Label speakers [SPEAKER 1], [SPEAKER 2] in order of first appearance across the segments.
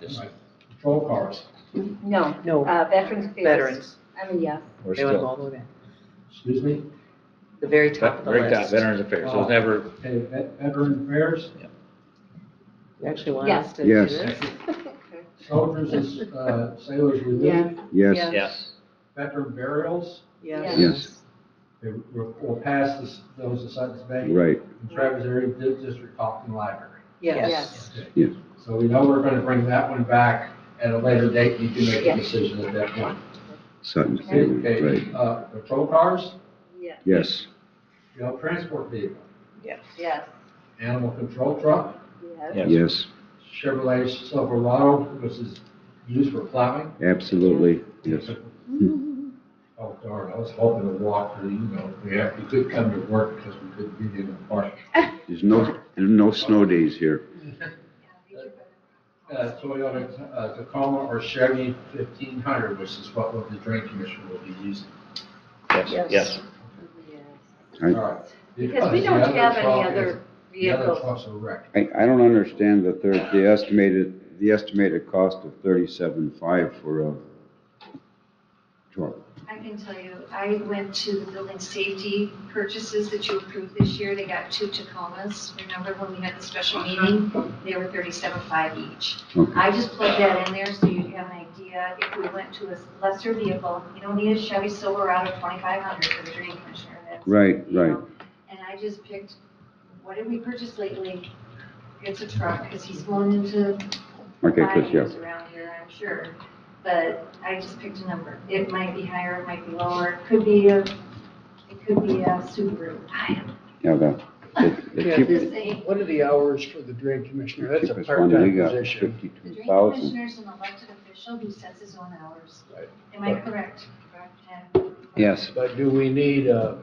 [SPEAKER 1] Just
[SPEAKER 2] Right. Patrol cars,
[SPEAKER 3] No,
[SPEAKER 4] No,
[SPEAKER 3] uh, Veterans Affairs.
[SPEAKER 4] veterans.
[SPEAKER 3] I mean, yes.
[SPEAKER 1] We're
[SPEAKER 4] They went
[SPEAKER 1] still,
[SPEAKER 4] all the way back.
[SPEAKER 2] excuse me,
[SPEAKER 4] The very top of the
[SPEAKER 1] very top,
[SPEAKER 4] list. Oh.
[SPEAKER 1] Veterans Affairs, so it's never,
[SPEAKER 2] okay, vet- veteran affairs,
[SPEAKER 4] You actually want
[SPEAKER 3] Yes.
[SPEAKER 4] us to do
[SPEAKER 5] Yes.
[SPEAKER 4] this?
[SPEAKER 2] soldiers and uh, sailors relief,
[SPEAKER 5] Yes,
[SPEAKER 1] yes,
[SPEAKER 2] veteran burials.
[SPEAKER 4] Yes.
[SPEAKER 5] Yes.
[SPEAKER 2] They were- We'll pass this- those to Sutton's Bay.
[SPEAKER 5] right,
[SPEAKER 2] and Travis Area Di- District Talking Library.
[SPEAKER 4] Yes.
[SPEAKER 3] Yes.
[SPEAKER 2] Okay.
[SPEAKER 5] Yes.
[SPEAKER 2] So we know we're gonna bring that one back at a later date, you can make a
[SPEAKER 3] Yes.
[SPEAKER 2] decision at that point.
[SPEAKER 5] Sutton's Bailey, right,
[SPEAKER 2] Okay, uh, patrol cars,
[SPEAKER 3] Yes.
[SPEAKER 5] yes,
[SPEAKER 2] jail transport vehicle,
[SPEAKER 4] Yes.
[SPEAKER 3] Yes.
[SPEAKER 2] animal control truck,
[SPEAKER 3] Yes.
[SPEAKER 1] yes.
[SPEAKER 5] yes,
[SPEAKER 2] Chevrolet Silverado, which is used for plowing.
[SPEAKER 5] absolutely, yes.
[SPEAKER 2] Oh darn, I was hoping to walk through, you know, yeah, we could come to work because we couldn't be in the park.
[SPEAKER 5] There's no, there's no snow days here.
[SPEAKER 2] Uh, Toyota uh, Tacoma or Chevy fifteen hundred, which is what the drain commissioner will be using.
[SPEAKER 1] yes, yes.
[SPEAKER 5] Right.
[SPEAKER 2] All right.
[SPEAKER 3] Because we
[SPEAKER 2] the
[SPEAKER 3] don't
[SPEAKER 2] other
[SPEAKER 3] have any
[SPEAKER 2] truck is-
[SPEAKER 3] other
[SPEAKER 2] The other
[SPEAKER 3] vehicles.
[SPEAKER 2] truck's a wreck.
[SPEAKER 5] I, I don't understand the third, the estimated, the estimated cost of thirty-seven five for a truck.
[SPEAKER 6] I can tell you, I went to the building safety purchases that you approved this year. They got two Tacomas. Remember when we had the special meeting? They were thirty-seven five each.
[SPEAKER 5] Okay,
[SPEAKER 6] I just plugged that in there so you'd have an idea. If we went to a lesser vehicle, you don't need a Chevy Silverado twenty-five hundred for the drain commissioner. That's,
[SPEAKER 5] Right,
[SPEAKER 6] you
[SPEAKER 5] right,
[SPEAKER 6] know, And I just picked, what did we purchase lately? It's a truck, because he's going into
[SPEAKER 5] okay, Chris, yeah,
[SPEAKER 6] Buyers around here, I'm sure, but I just picked a number. It might be higher, it might be lower, it could be a, it could be a Subaru. I
[SPEAKER 5] yeah, that, the- the
[SPEAKER 7] Yeah,
[SPEAKER 6] am
[SPEAKER 5] cheap-
[SPEAKER 6] just saying,
[SPEAKER 7] What are the hours for the drain commissioner?
[SPEAKER 5] the
[SPEAKER 7] That's a
[SPEAKER 5] cheapest one we
[SPEAKER 7] part-time
[SPEAKER 5] got,
[SPEAKER 7] position.
[SPEAKER 6] the
[SPEAKER 5] fifty-two
[SPEAKER 6] drain
[SPEAKER 5] thousand.
[SPEAKER 6] commissioner is an elected official who sets his own hours.
[SPEAKER 7] Right.
[SPEAKER 6] Am I correct? And
[SPEAKER 5] Yes,
[SPEAKER 7] But do we need a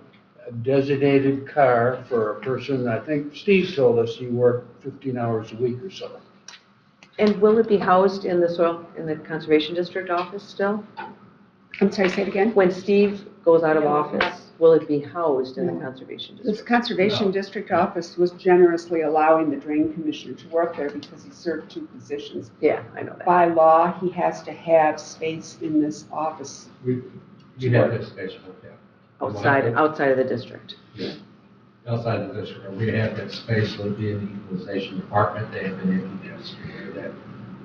[SPEAKER 7] a designated car for a person? I think Steve told us he worked 15 hours a week or so.
[SPEAKER 4] And will it be housed in the soil, in the conservation district office still?
[SPEAKER 8] I'm sorry, say it again.
[SPEAKER 4] When Steve goes out of office, will it be housed in the
[SPEAKER 8] No.
[SPEAKER 4] conservation
[SPEAKER 8] This
[SPEAKER 4] district?
[SPEAKER 8] Conservation District Office was generously allowing the drain commissioner to work there because he served two positions.
[SPEAKER 4] Yeah, I know that.
[SPEAKER 8] By law, he has to have space in this office.
[SPEAKER 2] We, we have this space for that.
[SPEAKER 4] Outside, outside of the district.
[SPEAKER 2] outside of this, room, we have that space would be in the equalization department, they have been able to secure that.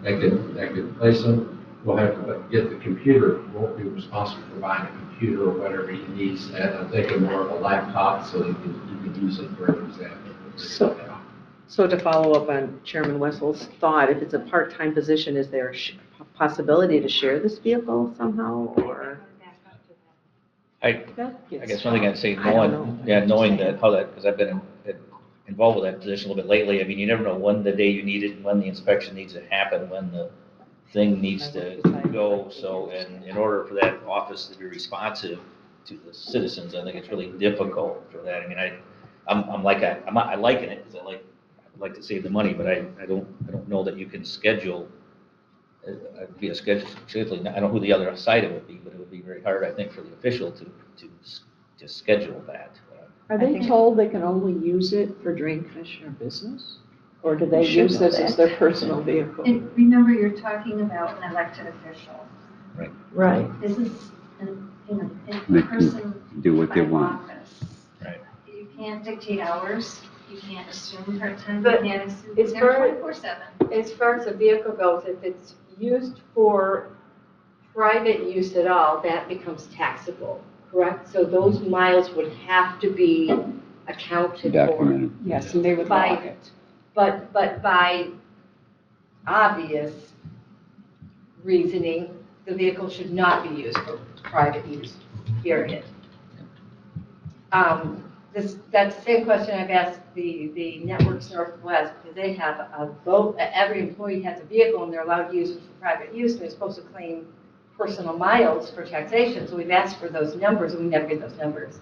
[SPEAKER 2] They could, they could place them, we'll have to get the computer, we'll be responsible for buying a computer or whatever he needs, and I'm thinking more of a laptop, so he can, he can use it for example.
[SPEAKER 4] So- So to follow up on Chairman Wessel's thought, if it's a part-time position, is there a sh- possibility to share this vehicle somehow or?
[SPEAKER 1] I guess one thing I'd say,
[SPEAKER 4] I don't
[SPEAKER 1] knowing,
[SPEAKER 4] know.
[SPEAKER 1] yeah, knowing that, how that, because I've been in- involved with that position a little bit lately, I mean, you never know when the day you need it, when the inspection needs to happen, when the thing needs to go, so, and in order for that office to be responsive to the citizens, I think it's really difficult for that, I mean, I, I'm, I'm like, I- I'm, I liken it, because I like, I'd like to save the money, but I, I don't, I don't know that you can schedule uh, uh, be a schedule, schedule, I don't know who the other side of it would be, but it would be very hard, I think, for the official to, to, s- to schedule that.
[SPEAKER 7] Are
[SPEAKER 4] they think-
[SPEAKER 7] told they can only use it for drain commissioner business? Or do
[SPEAKER 4] they use this as
[SPEAKER 7] their personal vehicle?
[SPEAKER 6] and remember, you're talking about an elected official.
[SPEAKER 4] Right.
[SPEAKER 6] This is, an- you know,
[SPEAKER 5] They can
[SPEAKER 6] a person
[SPEAKER 5] do what they
[SPEAKER 6] by
[SPEAKER 5] want.
[SPEAKER 6] office.
[SPEAKER 1] Right.
[SPEAKER 6] You can't dictate hours, you can't assume part-time, you
[SPEAKER 9] But
[SPEAKER 6] can't assume,
[SPEAKER 9] it's
[SPEAKER 6] they're
[SPEAKER 9] very-
[SPEAKER 6] twenty-four seven.
[SPEAKER 9] As far as the vehicle goes, if it's used for private use at all, that becomes taxable, correct? So those miles would have to be accounted for.
[SPEAKER 5] documented,
[SPEAKER 8] Yes, and they would
[SPEAKER 9] By-
[SPEAKER 8] log it.
[SPEAKER 9] But, but by obvious reasoning, the vehicle should not be used for private use, period. Um, This, that's the same question I've asked the, the Networks Northwest, because they have a boat, every employee has a vehicle and they're allowed to use it for private use, and they're supposed to claim personal miles for taxation, so we've asked for those numbers, and we never get those numbers.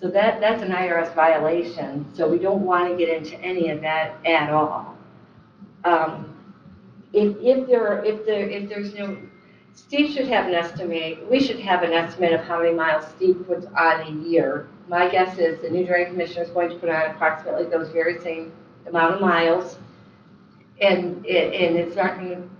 [SPEAKER 9] So that, that's an IRS violation, so we don't want to get into any of that at all. Um, If, if there, are- if there, if there's no, Steve should have an estimate, we should have an estimate of how many miles Steve puts on a year. My guess is the new drain commissioner is going to put on approximately those very same amount of miles. And, it- and it's not going to